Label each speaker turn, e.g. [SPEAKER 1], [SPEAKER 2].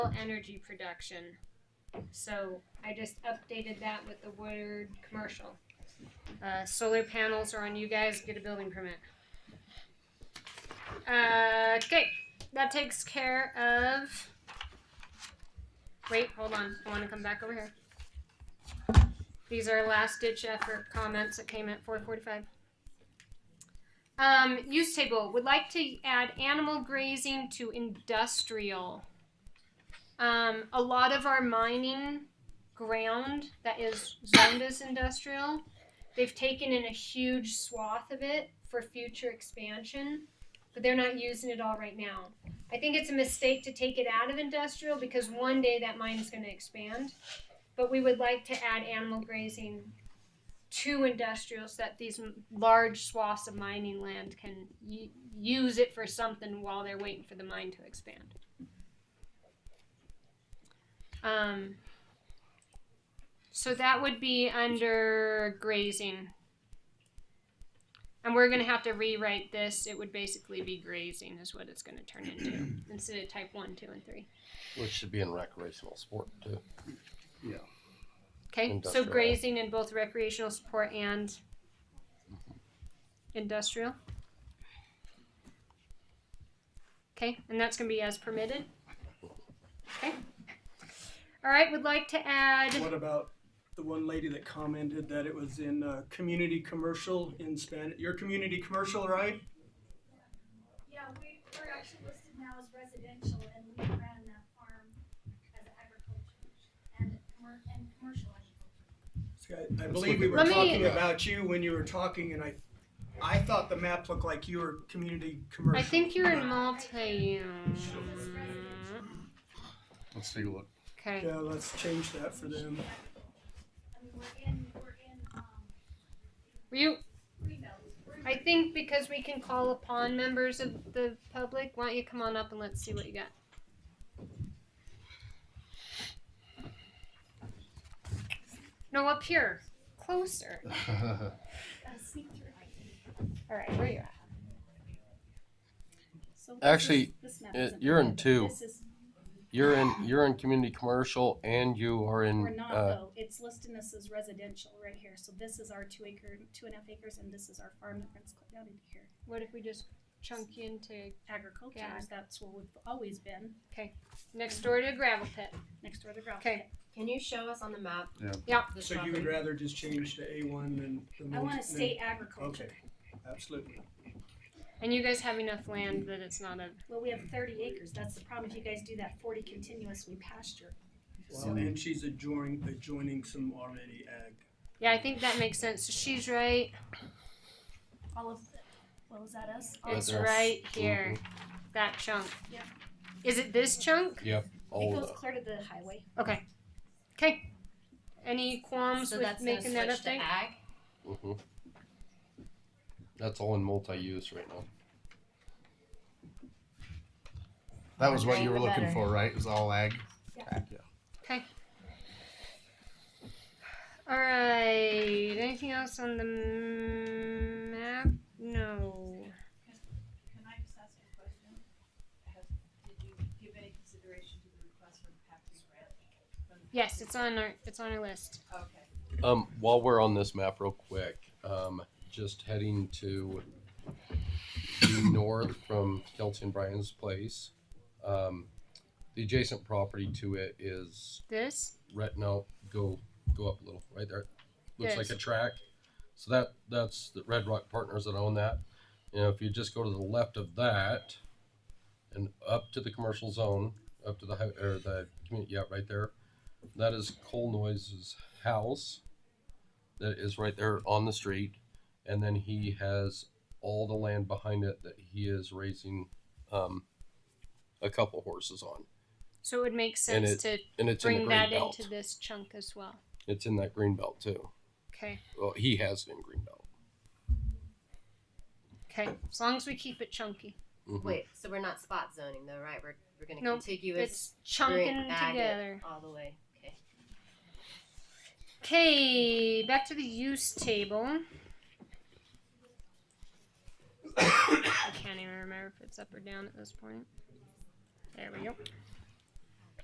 [SPEAKER 1] energy production. So I just updated that with the word commercial. Uh, solar panels are on you guys. Get a building permit. Uh, okay, that takes care of. Wait, hold on. I want to come back over here. These are last ditch effort comments that came at 4:45. Um, use table would like to add animal grazing to industrial. Um, a lot of our mining ground that is zoned as industrial, they've taken in a huge swath of it for future expansion, but they're not using it all right now. I think it's a mistake to take it out of industrial because one day that mine is going to expand. But we would like to add animal grazing to industrial so that these m- large swaths of mining land can y- use it for something while they're waiting for the mine to expand. Um, so that would be under grazing. And we're going to have to rewrite this. It would basically be grazing, is what it's going to turn into instead of type 1, 2, and 3.
[SPEAKER 2] Which should be in recreational sport too.
[SPEAKER 1] Okay, so
[SPEAKER 2] Industrial.
[SPEAKER 1] grazing in both recreational support and industrial. Okay, and that's gonna be as permitted. Okay. All right, would like to add,
[SPEAKER 3] What about the one lady that commented that it was in uh, community commercial in Spanish? Your community commercial, right?
[SPEAKER 4] Yeah, we, we're actually listed now as residential and we ran that farm as agriculture and commer- and commercial agriculture.
[SPEAKER 3] So I- I believe we were
[SPEAKER 1] Let me-
[SPEAKER 3] talking about you when you were talking, and I, I thought the map looked like you were community commercial.
[SPEAKER 1] I think you're in multi.
[SPEAKER 5] Let's take a look.
[SPEAKER 1] Okay,
[SPEAKER 3] Yeah, let's change that for them.
[SPEAKER 4] I mean, we're in, we're in, um,
[SPEAKER 1] were you,
[SPEAKER 4] Greenbelt. We're in-
[SPEAKER 1] I think because we can call upon members of the public, why don't you come on up and let's see what you got? No, up here, closer.
[SPEAKER 4] uh, sneak through.
[SPEAKER 1] All right, where you at?
[SPEAKER 6] So this
[SPEAKER 2] Actually,
[SPEAKER 6] is- this map
[SPEAKER 2] it-
[SPEAKER 6] isn't
[SPEAKER 2] Uh, you're in
[SPEAKER 6] permitted.
[SPEAKER 2] two.
[SPEAKER 6] This is-
[SPEAKER 2] You're in you're in community commercial and you are
[SPEAKER 6] We're
[SPEAKER 2] in
[SPEAKER 6] not
[SPEAKER 2] uh,
[SPEAKER 6] though, it's listed this as residential right here, so this is our two acre, two and a half acres, and this is our farm that runs clear down into here.
[SPEAKER 1] What if we just chunk you into
[SPEAKER 6] Agriculture,
[SPEAKER 1] Yeah.
[SPEAKER 6] that's where we've always been,
[SPEAKER 1] next door to a gravel pit?
[SPEAKER 6] next door to the gravel
[SPEAKER 1] Okay.
[SPEAKER 6] pit.
[SPEAKER 7] Can you show us on the map?
[SPEAKER 5] Yeah.
[SPEAKER 1] Yeah.
[SPEAKER 7] this
[SPEAKER 3] So you
[SPEAKER 7] property?
[SPEAKER 3] would rather just change to A one than the most.
[SPEAKER 6] I wanna
[SPEAKER 3] than-
[SPEAKER 6] stay agriculture,
[SPEAKER 3] Okay, absolutely.
[SPEAKER 1] And you guys have enough land that it's not a.
[SPEAKER 6] well, we have thirty acres, that's the problem, if you guys do that forty continuous, we pasture.
[SPEAKER 3] Well, and she's adjoining, adjoining some already ag.
[SPEAKER 1] Yeah, I think that makes sense. So she's right.
[SPEAKER 6] All of, the- well, is that us? All-
[SPEAKER 2] Right
[SPEAKER 1] It's
[SPEAKER 2] there.
[SPEAKER 1] right here. That chunk.
[SPEAKER 6] Yep.
[SPEAKER 1] Is it this chunk?
[SPEAKER 2] all
[SPEAKER 6] It
[SPEAKER 2] of
[SPEAKER 6] goes
[SPEAKER 2] the-
[SPEAKER 6] clear to the highway,
[SPEAKER 1] Any qualms
[SPEAKER 7] So
[SPEAKER 1] with
[SPEAKER 7] that's gonna
[SPEAKER 1] making
[SPEAKER 7] switch
[SPEAKER 1] that
[SPEAKER 7] to
[SPEAKER 1] update?
[SPEAKER 7] ag?
[SPEAKER 2] mhm. That's all in multi-use right now.
[SPEAKER 5] That was what
[SPEAKER 7] Okay,
[SPEAKER 5] you were
[SPEAKER 7] the
[SPEAKER 5] looking
[SPEAKER 7] better.
[SPEAKER 5] for, right? It was all ag.
[SPEAKER 1] All right. Anything else on the map? No.
[SPEAKER 8] Can I just ask you a question? Have, did you give any consideration to the request from Patrick Grant?
[SPEAKER 1] Yes, it's on our it's on our list.
[SPEAKER 8] Okay.
[SPEAKER 2] Um, while we're on this map, real quick, um, just heading to due north from Kelton Bryan's place. Um, the adjacent property to it is
[SPEAKER 1] This.
[SPEAKER 2] right now go go up a little right there looks
[SPEAKER 1] Yes.
[SPEAKER 2] like a track so that that's the red rock partners that own that you know if you just go to the left of that and up to the commercial zone up to the hou- or the community yeah right there that is cole noise's house that is right there on the street and then he has all the land behind it that he is raising um, a couple horses on
[SPEAKER 1] So it would make
[SPEAKER 2] And
[SPEAKER 1] sense to
[SPEAKER 2] and it's in the
[SPEAKER 1] bring
[SPEAKER 2] green
[SPEAKER 1] that
[SPEAKER 2] belt
[SPEAKER 1] into this chunk as well.
[SPEAKER 2] it's in that green belt too
[SPEAKER 1] Okay.
[SPEAKER 2] Well, he has it in Greenbelt.
[SPEAKER 1] Okay. As long as we keep it chunky.
[SPEAKER 2] Mhm.
[SPEAKER 7] Wait, so we're not spot zoning though, right? We're, we're gonna
[SPEAKER 1] Nope,
[SPEAKER 7] contiguous
[SPEAKER 1] It's chunking
[SPEAKER 7] bring ag it
[SPEAKER 1] together.
[SPEAKER 7] all the way. Okay.
[SPEAKER 1] Okay, back to the use table. I can't even remember if it's up or down at this point. There we go.